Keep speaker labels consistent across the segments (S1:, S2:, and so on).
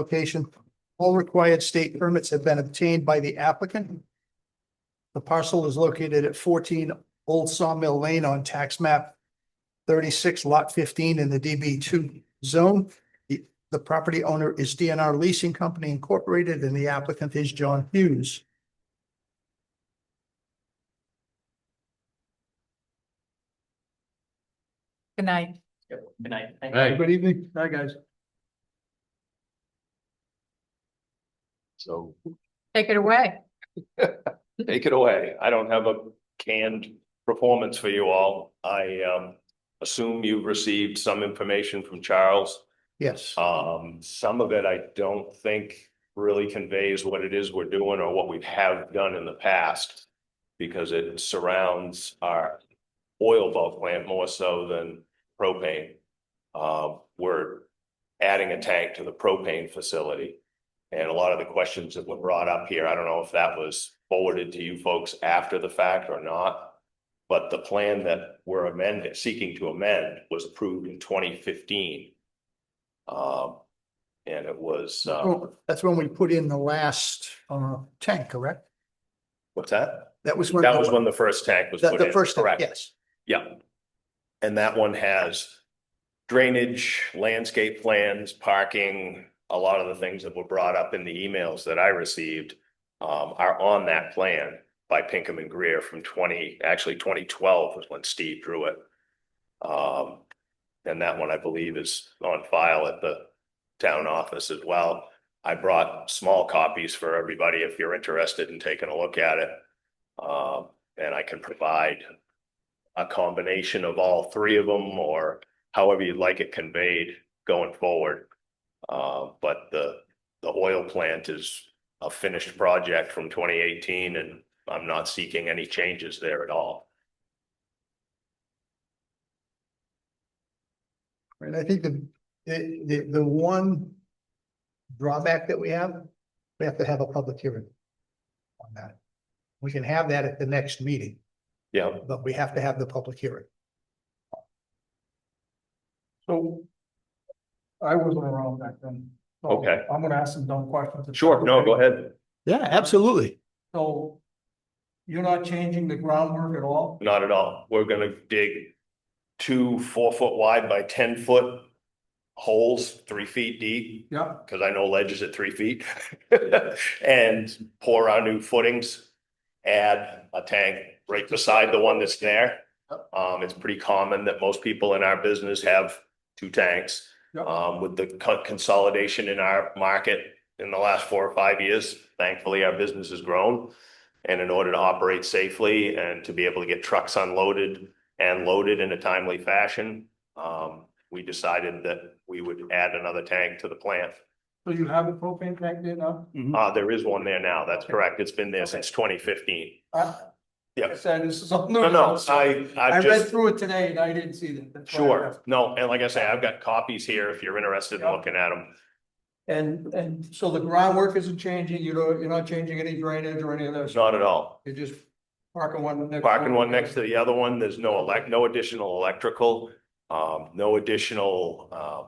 S1: location. All required state permits have been obtained by the applicant. The parcel is located at fourteen Old Sawmill Lane on tax map thirty-six lot fifteen in the DB two zone. The, the property owner is DNR Leasing Company Incorporated and the applicant is John Hughes.
S2: Good night.
S3: Yep, good night. Thank you.
S4: Right,
S1: Good evening. Hi, guys.
S4: so
S2: Take it away.
S4: take it away. I don't have a canned performance for you all. I um assume you've received some information from Charles.
S1: Yes.
S4: Um, some of it I don't think really conveys what it is we're doing or what we have done in the past. Because it surrounds our oil bulk plant more so than propane. Uh, we're adding a tank to the propane facility. And a lot of the questions that were brought up here, I don't know if that was forwarded to you folks after the fact or not. But the plan that we're amending, seeking to amend was approved in twenty fifteen. Um, and it was, uh,
S1: Oh, That's when we put in the last, uh, tank, correct?
S4: what's that?
S1: That was when.
S4: That was when the first tank was
S1: The,
S4: put
S1: the
S4: in,
S1: first, tank,
S4: correct?
S1: yes.
S4: Yeah. And that one has drainage, landscape plans, parking, a lot of the things that were brought up in the emails that I received um, are on that plan by Pinkham and Greer from twenty, actually twenty twelve was when Steve drew it. Um, and that one, I believe, is on file at the town office as well. I brought small copies for everybody if you're interested in taking a look at it. Um, and I can provide a combination of all three of them or however you'd like it conveyed going forward. Uh, but the, the oil plant is a finished project from twenty eighteen and I'm not seeking any changes there at all.
S1: And I think the, the, the, the one drawback that we have, we have to have a public hearing on that. We can have that at the next meeting,
S4: Yeah,
S1: but we have to have the public hearing.
S5: So I wasn't around back then. So
S4: Okay.
S5: Oh, I'm gonna ask some dumb questions. if
S4: sure.
S5: that's
S4: No,
S5: okay.
S4: go ahead.
S1: Yeah, absolutely.
S5: So you're not changing the groundwork at all?
S4: Not at all. We're gonna dig two four foot wide by ten foot holes, three feet deep.
S5: Yeah,
S4: because I know ledge is at three feet. And pour our new footings, add a tank right beside the one that's there. Um, it's pretty common that most people in our business have two tanks.
S5: Yep.
S4: Um, with the co- consolidation in our market in the last four or five years, thankfully, our business has grown. And in order to operate safely and to be able to get trucks unloaded and loaded in a timely fashion, um, we decided that we would add another tank to the plant.
S5: so you have a propane tank there now?
S4: Uh, there is one there now. That's correct. It's been there
S5: Mm-hmm. Okay.
S4: since twenty fifteen.
S5: I-
S4: Yeah.
S5: I said this is all new.
S4: No, no, I,
S5: I read
S4: I've just,
S5: through it today and I didn't see that. That's why I
S4: sure.
S5: asked.
S4: No, and like I say, I've got copies here if you're interested in
S5: Yeah.
S4: looking at them.
S5: And, and so the groundwork isn't changing, you don't, you're not changing any drainage or any of those,
S4: Not at all.
S5: you're just parking one next.
S4: Parking one next to the other one, there's no elect, no additional electrical, um, no additional, uh,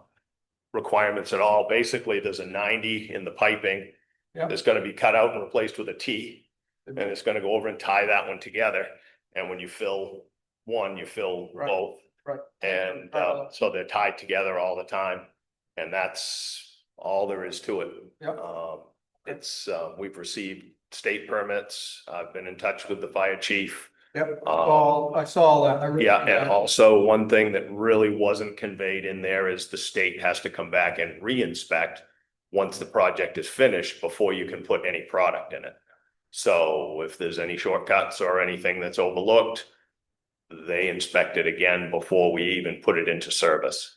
S4: requirements at all. Basically, there's a ninety in the piping.
S5: Yeah.
S4: That's gonna be cut out and replaced with a T. And it's gonna go over and tie that one together. And when you fill one, you fill
S5: Right.
S4: both.
S5: Right.
S4: And uh, so they're tied together all the time. And that's all there is to it.
S5: Yep.
S4: Um, it's, uh, we've received state permits. I've been in touch with the fire chief.
S5: Yep,
S4: Um,
S5: all, I saw that. I read
S4: yeah,
S5: that.
S4: and also one thing that really wasn't conveyed in there is the state has to come back and re-inspect once the project is finished before you can put any product in it. So if there's any shortcuts or anything that's overlooked, they inspect it again before we even put it into service.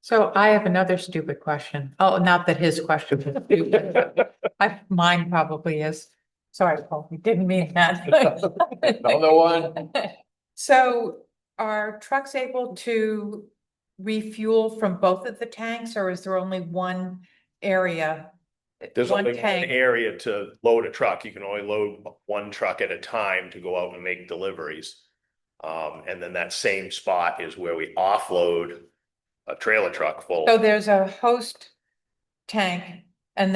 S2: So I have another stupid question. Oh, not that his question is stupid. I, mine probably is. Sorry, Paul, you didn't mean that.
S4: Another one?
S2: So are trucks able to refuel from both of the tanks or is there only one area?
S4: There's
S2: one
S4: only one
S2: tank?
S4: area to load a truck. You can only load one truck at a time to go out and make deliveries. Um, and then that same spot is where we offload a trailer truck full.
S2: So there's a host tank